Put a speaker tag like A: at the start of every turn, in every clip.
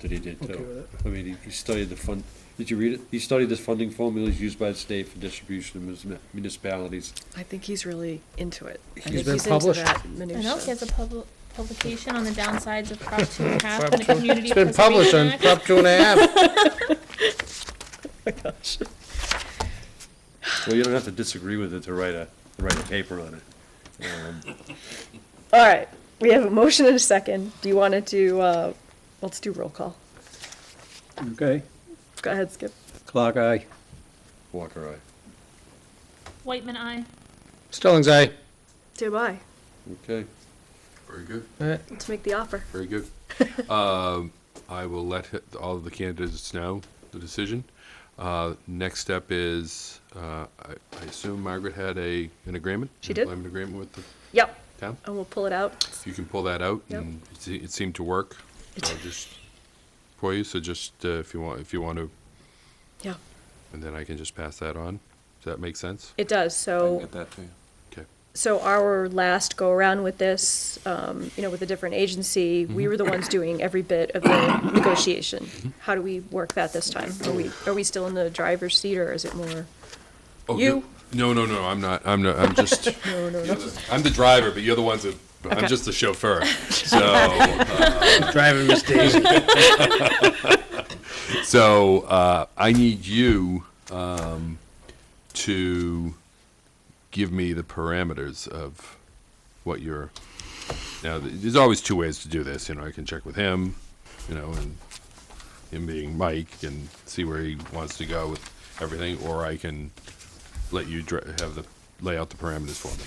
A: that he did
B: Okay
A: too.
B: with it.
A: I mean, he, he studied the fund, did you read it? He studied the funding formulas used by the state for distribution of munis- municipalities.
C: I think he's really into it. I think
B: He's been
C: into
B: published.
C: that
D: I know, he
C: minutia.
D: has a pub- publication on the downsides of Prop two and a half
B: Prop
D: and the
B: two-
D: Community
B: It's been published
D: Preservation
B: on
D: Act.
B: Prop two and a half.
A: Well, you don't have to disagree with it to write a, to write a paper on it. Um,
C: All right, we have a motion and a second. Do you want to do, uh, let's do roll call.
B: Okay,
C: Go ahead, Skip.
B: clock eye.
A: Walker, aye.
D: Whitman, I.
B: Stillings eye.
C: Say bye.
A: Okay.
E: Very good,
B: Alright,
C: Let's make the offer.
E: very good. Um, I will let hi- all of the candidates know the decision. Uh, Next step is, uh, I I assume Margaret had a, an agreement?
C: She did.
E: Employment agreement with the
C: Yep,
E: town?
C: and we'll pull it out.
E: If you can pull that out,
C: Yep.
E: and it se- it seemed to work
C: It-
E: uh, just for you, so just uh, if you want, if you want to,
C: Yeah,
E: and then I can just pass that on. Does that make sense?
C: it does, so.
E: Okay.
C: So our last go-around with this, um, you know, with a different agency,
B: Mm-hmm.
C: we were the ones doing every bit of the negotiation. How do we work that this time? Are we, are we still in the driver's seat, or is it more?
E: Oh,
C: You.
E: No, no, no, I'm not, I'm not, I'm just. No, no, no. I'm the driver, but you're the ones that, I'm just the chauffeur, so.
B: driving Miss Daisy.
E: So uh, I need you um, to give me the parameters of what you're. Now, th- there's always two ways to do this. You know, I can check with him, you know, and him being Mike, and see where he wants to go with everything, or I can let you dra- have the lay out the parameters for me.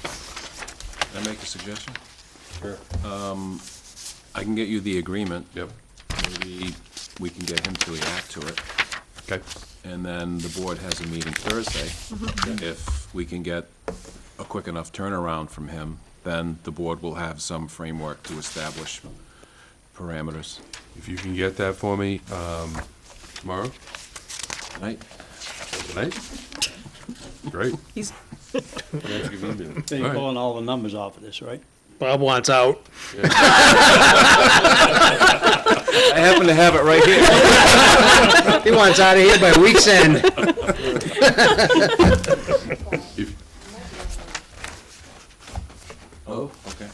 F: Can I make a suggestion? Sure. I can get you the agreement.
E: Yep.
F: Maybe we can get him to react to it,
E: Okay.
F: and then the board has a meeting Thursday. If we can get a quick enough turnaround from him, then the board will have some framework to establish parameters.
E: If you can get that for me um, tomorrow
F: Right?
E: tonight, great.
C: He's,
A: That's a good email.
G: So you're
E: Right.
G: pulling all the numbers off of this, right?
B: Bob wants out. I happen to have it right here. He wants out of here by week's end.
E: If,
F: Oh, okay.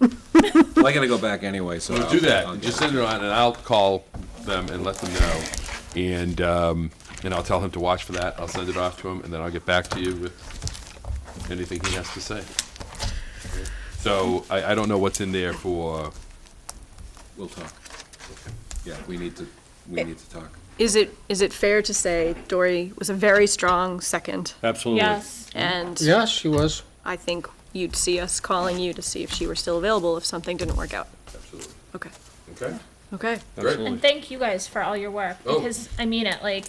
F: Well, I gotta go back anyway, so.
E: Well,
F: I'll-
E: do
F: I'll
E: that.
F: get
E: Just
F: it.
E: send it on, and I'll call them and let them know. And, um, and I'll tell him to watch for that. I'll send it off to him, and then I'll get back to you with anything he has to say. So I, I don't know what's in there for,
F: We'll talk. Yeah, we need to, we need to talk.
C: is it, is it fair to say Dory was a very strong second?
A: Absolutely.
D: Yes.
C: And
B: Yes, she was.
C: I think you'd see us calling you to see if she were still available if something didn't work out.
E: absolutely.
C: Okay,
E: Okay?
C: okay.
E: Great.
D: And thank you guys for all your work,
E: Oh.
D: because I mean it, like,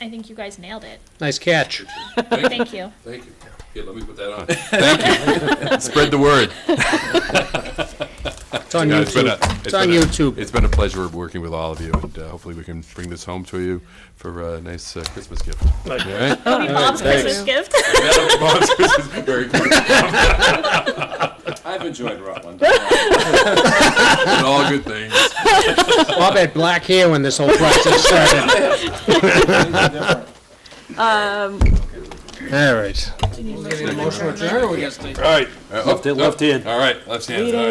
D: I think you guys nailed it.
B: Nice catch.
D: Thank you.
E: Thank you. Here, let me put that on. Thank you. Spread the word.
B: It's on
E: Yeah, it's been a-
B: YouTube. It's on
E: been a-
B: YouTube.
E: It's been a pleasure working with all of you, and uh, hopefully we can bring this home to you for a nice uh, Christmas gift. All right?
D: It'll be Bob's Christmas gift.
E: Bob's Christmas very good.
F: I've enjoyed Rutland.
E: And all good things.
B: Bob had black hair when this whole process started. All right.
E: All right. Left hand. Left hand. Uh, oh, All right. Left hand. All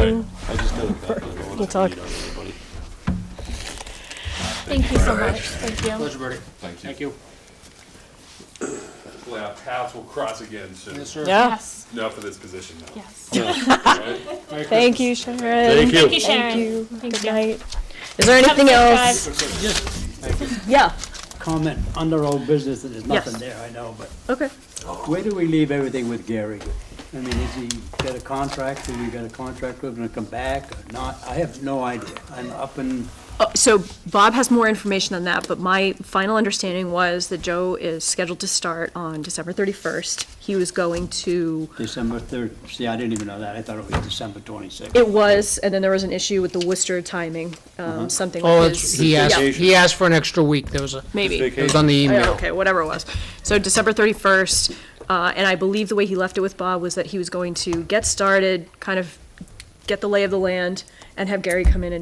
E: right.
C: We'll talk.
D: Thank you so much. Thank you.
E: Thank you. Thank you. Hopefully our paths will cross again soon.
C: Yeah,
D: Yes,
E: Not for this position, though.
D: yes.
C: thank you, Sharon.
D: Thank you, Sharon. Thank
C: Good
D: you.
C: night. Is there anything else? Yeah,
G: Comment, under old business, and there's nothing
C: Yes.
G: there, I know, but
C: okay.
G: where do we leave everything with Gary? I mean, has he got a contract, have we got a contract with him to come back or not? I have no idea, I'm up in,
C: Uh, So Bob has more information on that, but my final understanding was that Joe is scheduled to start on December 31st. He was going to
G: December third, see, I didn't even know that, I thought it was December twenty-sixth.
C: It was, and then there was an issue with the Worcester timing, um, something
B: Oh,
C: like
B: it's-
C: this.
B: he asked,
C: Yeah,
B: he asked for an extra week. There was a,
C: Maybe.
B: it was on the
C: Yeah,
B: email.
C: Oh, Okay, whatever it was. So December thirty-first, uh, and I believe the way he left it with Bob was that he was going to get started, kind of get the lay of the land and have Gary come in and